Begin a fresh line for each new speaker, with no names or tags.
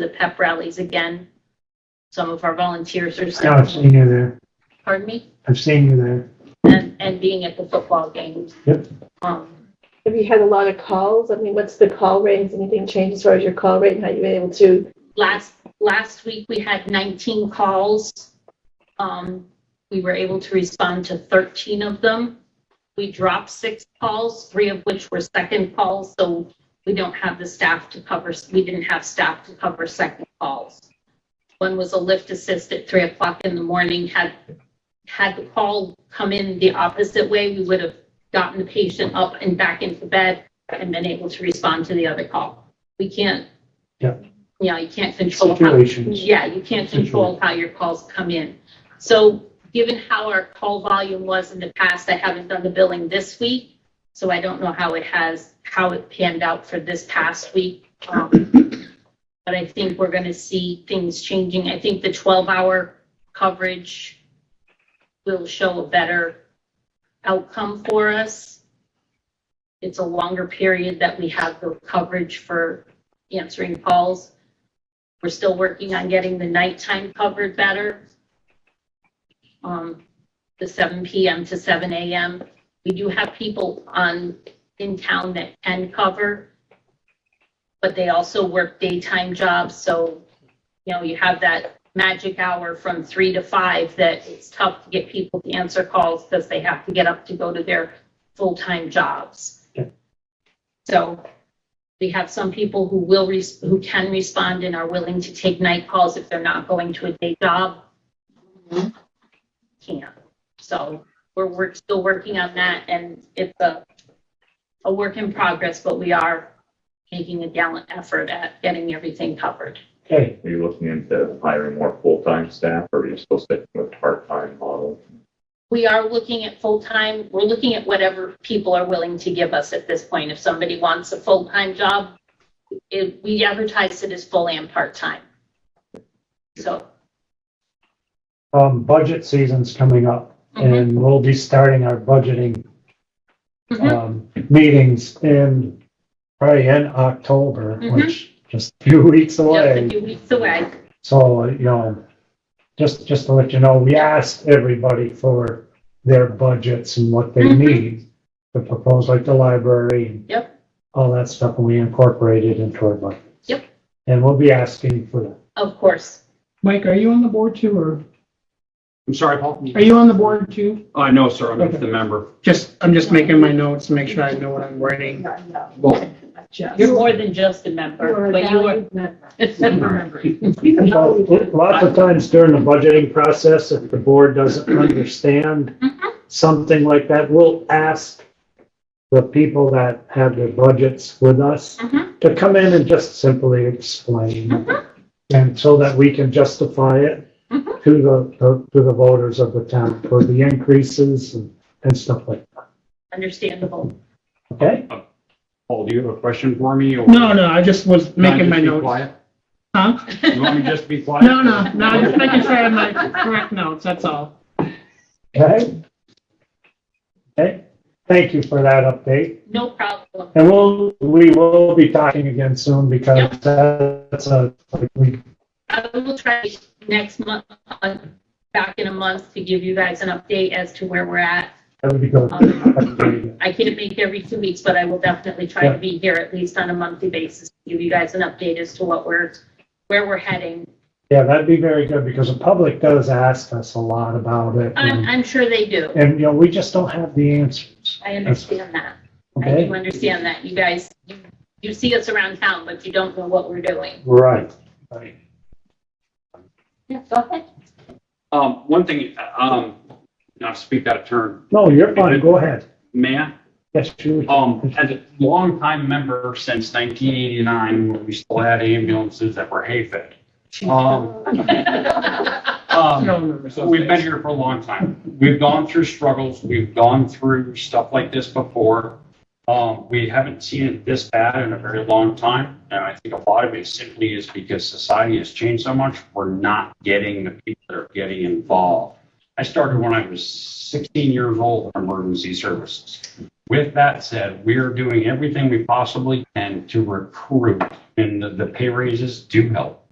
to the pep rallies again. Some of our volunteers are
No, I've
still,
seen you there.
pardon me,
I've seen you there.
and, and being at the football games.
Yep.
Um,
Have you had a lot of calls? I mean, what's the call rate? Has anything changed as far as your call rate and how you've been able to?
last, last week, we had 19 calls. Um, we were able to respond to 13 of them. We dropped six calls, three of which were second calls, so we don't have the staff to cover, we didn't have staff to cover second calls. One was a lift assist at 3 o'clock in the morning. Had, had the call come in the opposite way, we would have gotten the patient up and back into bed and been able to respond to the other call. We can't.
Yeah.
Yeah, you can't control how
Situations.
yeah, you can't control how your calls come in. So given how our call volume was in the past, I haven't done the billing this week. So I don't know how it has, how it panned out for this past week. Um, But I think we're going to see things changing. I think the 12-hour coverage will show a better outcome for us. It's a longer period that we have the coverage for answering calls. We're still working on getting the nighttime covered better. Um, the seven PM to seven AM. We do have people on, in town that can cover. But they also work daytime jobs, so, you know, you have that magic hour from three to five that it's tough to get people to answer calls because they have to get up to go to their full-time jobs.
Yeah.
So we have some people who will, res- who can respond and are willing to take night calls if they're not going to a day job. Can't. So we're, we're still working on that and it's a, a work in progress, but we are making a gallant effort at getting everything covered.
Okay,
Are you looking into hiring more full-time staff or are you still sticking with part-time model?
We are looking at full-time, we're looking at whatever people are willing to give us at this point. If somebody wants a full-time job, it, we advertise it as full and part-time. So
um, budget season's coming up
Mm-hmm.
and we'll be starting our budgeting,
Mhm.
um, meetings in probably in October,
Mhm.
which just a few weeks
Just a
away.
few weeks away.
So, you know, just, just to let you know, we asked everybody for their budgets and what they
Mhm.
need to propose, like the library and
Yep.
all that stuff, and we incorporated into our budget.
Yep.
And we'll be asking for that.
Of course.
Mike, are you on the board too, or
I'm sorry, Paul.
are you on the board too?
Uh, no, sir, I'm just a member.
Just, I'm just making my notes to make sure I know what I'm writing.
Well,
You're more than just a member, but you are.
Well, Lots of times during the budgeting process, if the board doesn't understand
Mhm.
something like that, we'll ask the people that have their budgets with us
Mhm.
to come in and just simply explain.
Mhm.
And so that we can justify it
Mhm.
to the, to to the voters of the town for the increases and and stuff like
Understandable.
that, okay?
Paul, do you have a question for me? or-
No, no, I just was
Can I
making
just
my
be
notes.
quiet?
Huh?
You want me to just be quiet?
No, no, no, I'm just making sure I have my correct notes, that's
Um,
all.
Okay? Okay, thank you for that update.
No problem.
And we'll, we will be talking again soon because that's a, like, we,
I will try next month, uh, back in a month to give you guys an update as to where we're at.
that would be good.
Um, I can't make every two weeks, but I will definitely try
Yeah.
to be here at least on a monthly basis, to give you guys an update as to what we're, where we're heading.
Yeah, that'd be very good because the public does ask us a lot about it.
I'm,
And,
I'm sure they do.
and, you know, we just don't have the answers,
I understand that. I
okay?
do understand that. You guys, you- you see us around town, but you don't know what we're doing.
Right. Right.
Yeah, go ahead.
Um, one thing, um, not to speak out of turn,
No, you're fine, go ahead.
may I?
Yes, you.
Um, as a longtime member since nineteen eighty-nine, when we still had ambulances that were hay fed. Um,
I
um,
don't remember
so
those
we've been
days.
here for a long time. We've gone through struggles, we've gone through stuff like this before. Um, we haven't seen it this bad in a very long time, and I think a lot of it simply is because society has changed so much, we're not getting the people that are getting involved. I started when I was sixteen years old in emergency services. With that said, we are doing everything we possibly can to recruit, and the- the pay raises do help.